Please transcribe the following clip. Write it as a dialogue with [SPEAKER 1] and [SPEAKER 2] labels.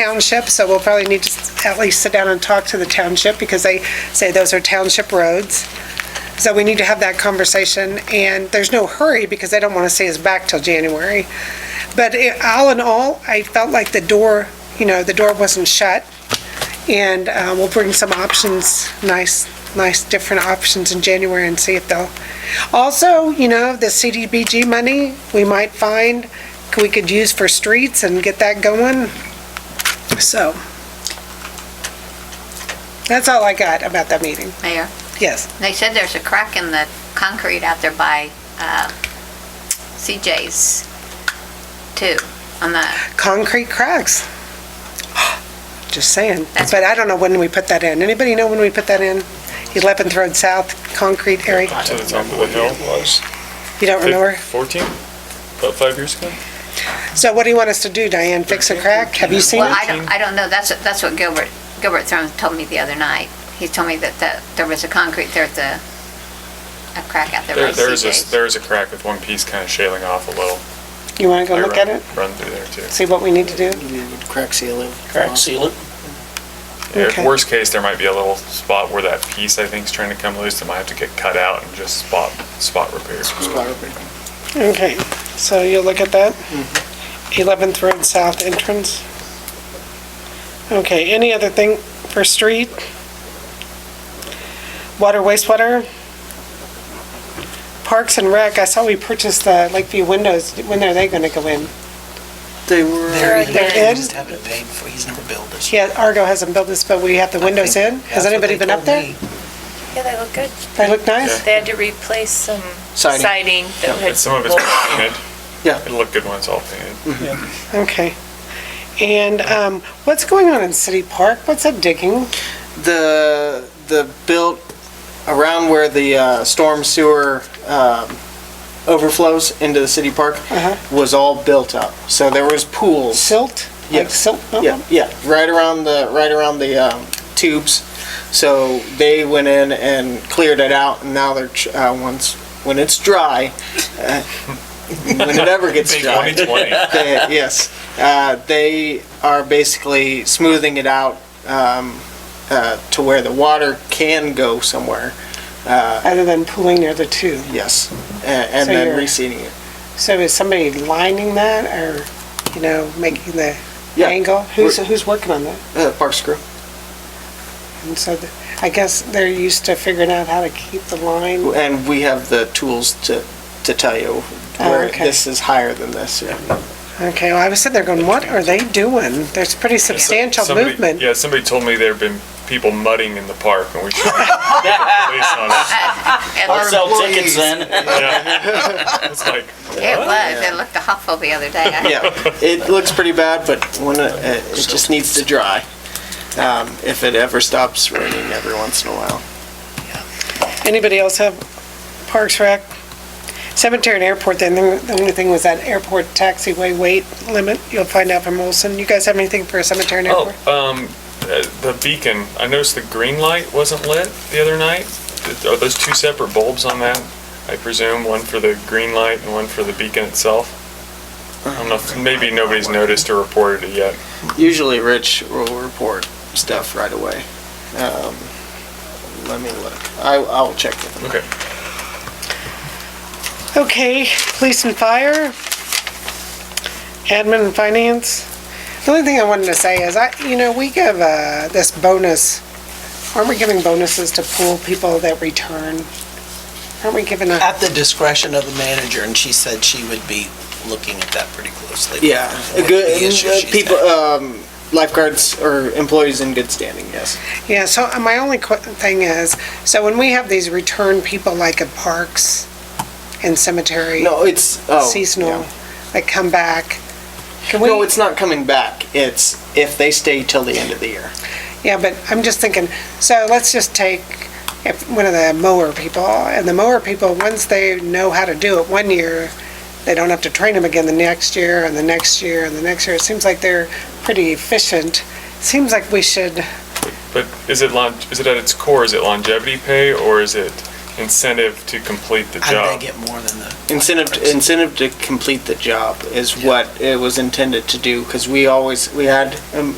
[SPEAKER 1] township, so we'll probably need to at least sit down and talk to the township because they say those are township roads. So we need to have that conversation, and there's no hurry because they don't want to see us back till January. But it- all in all, I felt like the door, you know, the door wasn't shut, and uh, we'll bring some options, nice, nice different options in January and see if they'll. Also, you know, the CDBG money, we might find, we could use for streets and get that going, so. That's all I got about that meeting,
[SPEAKER 2] Mayor,
[SPEAKER 1] yes.
[SPEAKER 2] they said there's a crack in the concrete out there by uh, CJ's too, on the,
[SPEAKER 1] concrete cracks. Just saying.
[SPEAKER 2] That's-
[SPEAKER 1] But I don't know when we put that in. Anybody know when we put that in? 11th Road South, concrete area?
[SPEAKER 3] To the top of the hill was.
[SPEAKER 1] You don't remember?
[SPEAKER 3] Fourteen, about five years ago.
[SPEAKER 1] So what do you want us to do, Diane? Fix a crack? Have you seen
[SPEAKER 2] well,
[SPEAKER 1] it?
[SPEAKER 2] I don't, I don't know, that's, that's what Gilbert, Gilbert Thorne told me the other night. He told me that, that there was a concrete, there's a, a crack out there by
[SPEAKER 3] There, there's a,
[SPEAKER 2] CJ's.
[SPEAKER 3] there's a crack with one piece kind of shaling off a little.
[SPEAKER 1] You want to
[SPEAKER 3] I
[SPEAKER 1] go look at
[SPEAKER 3] run-
[SPEAKER 1] it?
[SPEAKER 3] Run through there too.
[SPEAKER 1] See what we need to do?
[SPEAKER 4] Crack seal it.
[SPEAKER 1] Crack
[SPEAKER 4] seal it.
[SPEAKER 3] Yeah,
[SPEAKER 1] Okay.
[SPEAKER 3] Worst case, there might be a little spot where that piece, I think, is trying to come loose. It might have to get cut out and just spot, spot repair.
[SPEAKER 4] Spot repair.
[SPEAKER 1] Okay, so you'll look at that? 11th Road South entrance? Okay, any other thing for street? Water wastewater? Parks and Rec, I saw we purchased the Lakeview windows, when are they gonna go in?
[SPEAKER 4] They were.
[SPEAKER 1] They're- they're
[SPEAKER 4] He
[SPEAKER 1] in?
[SPEAKER 4] just haven't paid for, he's never billed us.
[SPEAKER 1] Yeah, Argo hasn't built this, but we have the windows in? Has
[SPEAKER 4] That's what
[SPEAKER 1] anybody
[SPEAKER 4] they
[SPEAKER 1] been up
[SPEAKER 4] told
[SPEAKER 1] there?
[SPEAKER 4] me.
[SPEAKER 5] Yeah, they look good.
[SPEAKER 1] They look nice?
[SPEAKER 3] Yeah.
[SPEAKER 5] They had to replace some
[SPEAKER 4] Siding.
[SPEAKER 5] siding that
[SPEAKER 3] And
[SPEAKER 5] had.
[SPEAKER 3] some of it's painted.
[SPEAKER 4] Yeah.
[SPEAKER 3] It'll look good when it's all painted.
[SPEAKER 1] Okay. And, um, what's going on in City Park? What's that digging?
[SPEAKER 4] The, the built around where the uh, storm sewer um, overflows into the city park
[SPEAKER 1] Uh-huh.
[SPEAKER 4] was all built up. Uh-huh. So uh-huh. there was pools.
[SPEAKER 1] Silt? Like
[SPEAKER 4] Yes.
[SPEAKER 1] silt?
[SPEAKER 4] Yeah, yeah, right around the, right around the um, tubes. So they went in and cleared it out and now they're, tr- uh, once, when it's dry, uh, when it ever gets
[SPEAKER 3] Big
[SPEAKER 4] dry.
[SPEAKER 3] 2020.
[SPEAKER 4] They- yes, uh, they are basically smoothing it out um, uh, to where the water can go somewhere.
[SPEAKER 1] Other than pooling near the two?
[SPEAKER 4] Yes, and, and
[SPEAKER 1] So
[SPEAKER 4] then
[SPEAKER 1] you're-
[SPEAKER 4] reseeding it.
[SPEAKER 1] So is somebody lining that or, you know, making the
[SPEAKER 4] Yeah.
[SPEAKER 1] angle? Who's, who's working on that?
[SPEAKER 4] Uh, Parks Crew.
[SPEAKER 1] And so the- I guess they're used to figuring out how to keep the line.
[SPEAKER 4] and we have the tools to to tell you
[SPEAKER 1] Oh,
[SPEAKER 4] where
[SPEAKER 1] okay.
[SPEAKER 4] this is higher than this. Yeah.
[SPEAKER 1] Okay, well, I was sitting there going, what are they doing? There's pretty substantial
[SPEAKER 3] Somebody-
[SPEAKER 1] movement.
[SPEAKER 3] Yeah, somebody told me there've been people mudding in the park and we should. get the police on us.
[SPEAKER 2] It
[SPEAKER 6] I'll
[SPEAKER 2] looked-
[SPEAKER 6] sell tickets then.
[SPEAKER 3] Yeah. It's like,
[SPEAKER 2] It
[SPEAKER 3] Oh,
[SPEAKER 2] was, it looked awful the other day. I-
[SPEAKER 4] yeah, it looks pretty bad, but when it, it just needs to dry. Um, if it ever stops raining every once in a while.
[SPEAKER 1] Anybody else have Parks Rec? Cemetery and airport, then the only thing was that airport taxiway weight limit. You'll find out from Olson. You guys have anything for cemetery and
[SPEAKER 3] oh,
[SPEAKER 1] airport?
[SPEAKER 3] um, the the beacon, I noticed the green light wasn't lit the other night. Are those two separate bulbs on that? I presume, one for the green light and one for the beacon itself? I don't know, if- maybe nobody's noticed or reported it yet.
[SPEAKER 4] Usually Rich will report stuff right away. Um, let me look. I, I'll check with him.
[SPEAKER 3] Okay.
[SPEAKER 1] Okay, police and fire, admin and finance. The only thing I wanted to say is, I, you know, we give uh, this bonus, aren't we giving bonuses to pool people that return? Aren't we giving a,
[SPEAKER 7] At the discretion of the manager, and she said she would be looking at that pretty closely.
[SPEAKER 4] Yeah,
[SPEAKER 7] What
[SPEAKER 4] a good
[SPEAKER 7] the issue
[SPEAKER 4] uh,
[SPEAKER 7] she's
[SPEAKER 4] people.
[SPEAKER 7] had.
[SPEAKER 4] Um, lifeguards or employees in good standing. Yes.
[SPEAKER 1] yeah, so uh, my only que- thing is, so when we have these return people like at parks and cemetery,
[SPEAKER 4] No, it's oh,
[SPEAKER 1] seasonal,
[SPEAKER 4] yeah.
[SPEAKER 1] that come back, can we?
[SPEAKER 4] No, it's not coming back. It's if they stay till the end of the year.
[SPEAKER 1] Yeah, but I'm just thinking, so let's just take if one of the mower people, and the mower people, once they know how to do it one year, they don't have to train them again the next year, and the next year, and the next year. It seems like they're pretty efficient. Seems like we should,
[SPEAKER 3] But is it lon, is it at its core, is it longevity pay or is it incentive to complete the
[SPEAKER 7] How did
[SPEAKER 3] job.
[SPEAKER 7] they get more than the?
[SPEAKER 4] Incentive, incentive to complete the job is what it was intended to do, because we always, we had um,